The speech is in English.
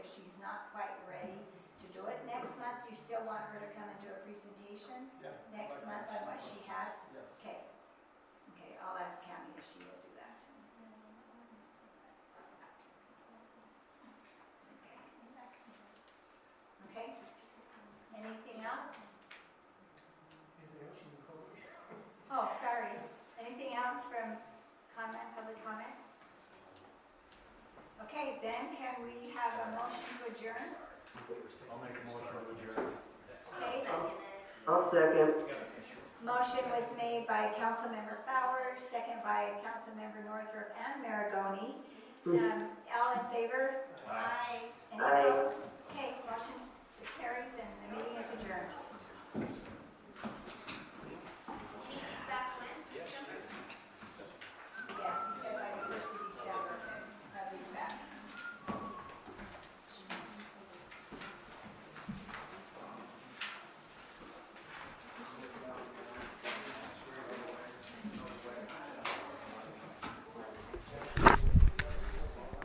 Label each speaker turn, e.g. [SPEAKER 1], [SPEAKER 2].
[SPEAKER 1] clarify what she had?
[SPEAKER 2] Yes.
[SPEAKER 1] Okay. Okay, I'll ask Tammy if she will do that. Okay? Anything else?
[SPEAKER 2] Anything else from the public?
[SPEAKER 1] Oh, sorry. Anything else from comment, public comments? Okay, then can we have a motion to adjourn?
[SPEAKER 3] I'll make a motion to adjourn.
[SPEAKER 1] Okay,
[SPEAKER 4] I'll second.
[SPEAKER 1] motion was made by Councilmember Fowler, second by Councilmember Northrup and Maragoni. Um, All in favor? Aye.